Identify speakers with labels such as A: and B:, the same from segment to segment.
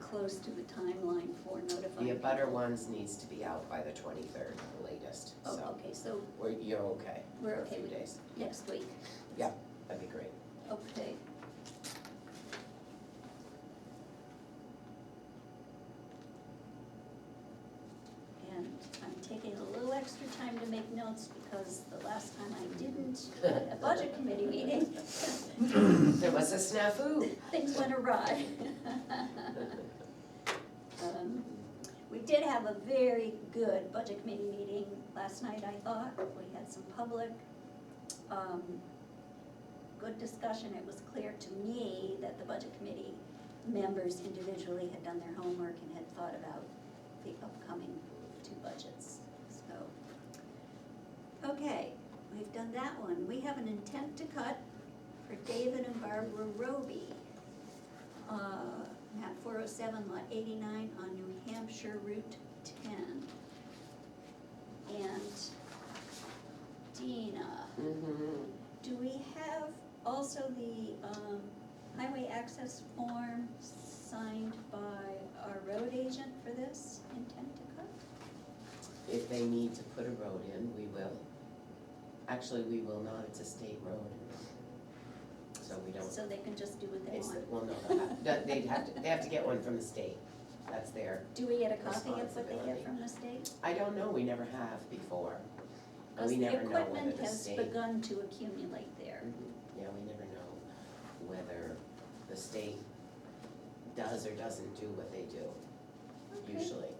A: close to the timeline for notifying.
B: The abutter
A: people.
B: ones needs to be out by the twenty-third latest,
A: Oh,
B: so
A: okay, so
B: we're, you're okay
A: We're
B: for a
A: okay
B: few
A: with-
B: days.
A: next week,
B: That'd be great.
A: okay. And I'm taking a little extra time to make notes because the last time I didn't, uh, at a budget committee meeting,
B: There was a snafu.
A: things went awry. Um, We did have a very good budget committee meeting last night, I thought. We had some public, um, good discussion. It was clear to me that the budget committee members individually had done their homework and had thought about the upcoming two budgets, so. Okay, we've done that one. We have an intent to cut for David and Barbara Roby. Uh, map four oh seven, lot eighty-nine on New Hampshire Route ten. And Dina,
B: Mm-hmm.
A: do we have also the, um, highway access form signed by our road agent for this intent to cut?
B: If they need to put a road in, we will. Actually, we will not, it's a state road. So we don't,
A: So they can just do what they
B: it's,
A: want.
B: well, no, that- they'd have to, they have to get one from the state. That's their,
A: Do we get a copy of what they
B: Responsibility.
A: get from the state?
B: I don't know, we never have before. And
A: Because
B: we
A: the
B: never know whether
A: equipment
B: the
A: has
B: state.
A: begun to accumulate there.
B: Mhm. Yeah, we never know whether the state does or doesn't do what they do,
A: Okay,
B: usually.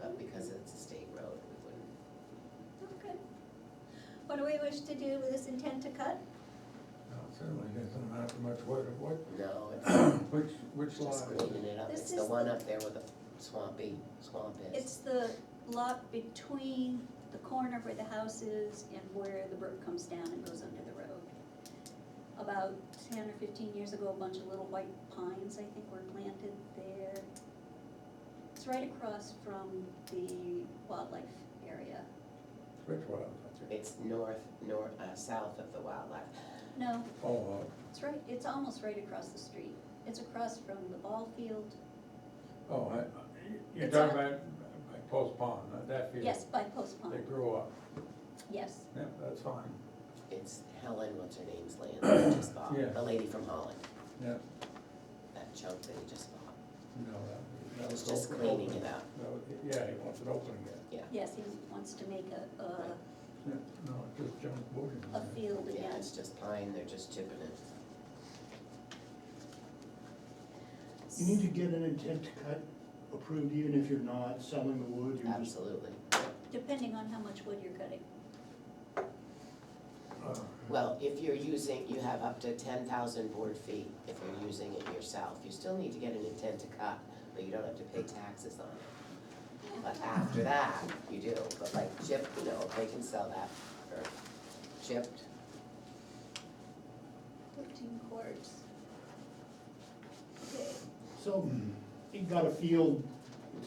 B: But because it's a state road, we wouldn't.
A: okay. What do we wish to do with this intent to cut?
C: No, it Certainly doesn't matter much what, what,
B: No, it's
C: which, which lot
B: just
C: is
B: cleaning
C: it?
B: it up.
A: This
B: It's the
A: is-
B: one up there where the swampy swamp is.
A: It's the lot between the corner where the house is and where the brook comes down and goes under the road. About ten or fifteen years ago, a bunch of little white pines, I think, were planted there. It's right across from the wildlife area.
C: Which lot?
B: It's north, nor, uh, south of the wildlife.
A: No,
C: Oh,
A: it's right, it's almost right across the street. It's across from the ball field,
C: uh, oh, I, you're
A: It's
C: talking
A: on-
C: about like Post Pond, that- that field?
A: yes, by Post
C: They
A: Pond,
C: grew up,
A: yes.
C: yeah, that's fine,
B: It's Helen, what's her name's land that they just bought,
C: Yeah.
B: the lady from Holland,
C: yeah,
B: that chunk that he just bought.
C: you know, that. that
B: It was
C: was
B: just
C: open-
B: cleaning it
C: open.
B: up.
C: That was- Yeah, he wants it open again,
A: Yes, he wants to make a, a,
C: yeah, no, it just junk boarding.
A: a field again.
B: Yeah, it's just pine, they're just chipping it.
D: You need to get an intent to cut approved, even if you're not selling the wood, you're just,
B: Absolutely.
A: Depending on how much wood you're cutting.
C: Uh,
B: Well, if you're using, you have up to ten thousand board feet, if you're using it yourself, you still need to get an intent to cut, but you don't have to pay taxes on it. But after that, you do, but like chipped, you know, they can sell that for chipped,
A: Fifteen cords. Okay,
D: so, you got a field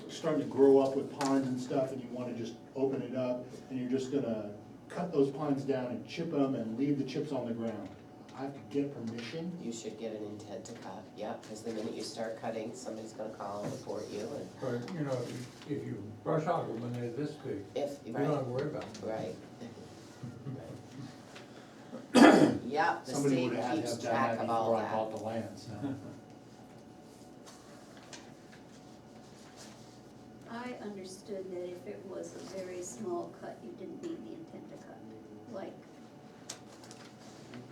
D: starting to grow up with pines and stuff, and you wanna just open it up, and you're just gonna cut those pines down and chip them and leave the chips on the ground. I have to get permission?
B: you should get an intent to cut, yeah, cause the minute you start cutting, somebody's gonna call and report you and
C: But, you know, if you- if you brush hog them when they're this big,
B: if,
C: you
B: right.
C: don't have to worry about them.
B: Right. Yeah, the
E: Somebody
B: state
E: would have
B: keeps
E: have done
B: track
E: that
B: of all
E: before I
B: that.
E: bought the land, so.
A: I understood that if it was a very small cut, you didn't need the intent to cut, like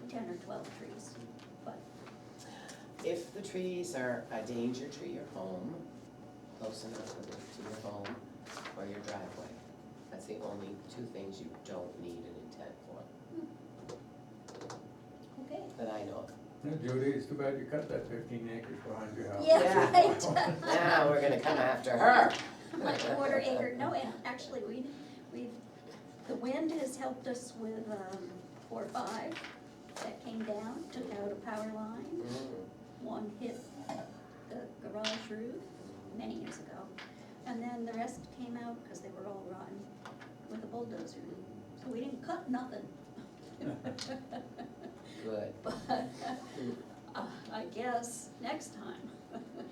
A: ten or twelve trees, but,
B: If the trees are a danger to your home, close enough to the- to your home or your driveway, that's the only two things you don't need an intent for,
A: okay.
B: that I know of.
C: Yeah, Judy, it's too bad you cut that fifteen acres behind your house.
A: Yeah, right.
B: Now, we're gonna come after her.
A: Like quarter acre, no, and actually, we, we've, the wind has helped us with, um, four, five, that came down, took out a power line.
B: Mm,
A: One hit the garage roof many years ago, and then the rest came out because they were all rotten with a bulldozer. So we didn't cut nothing.
B: Good.
A: But uh, I guess next time.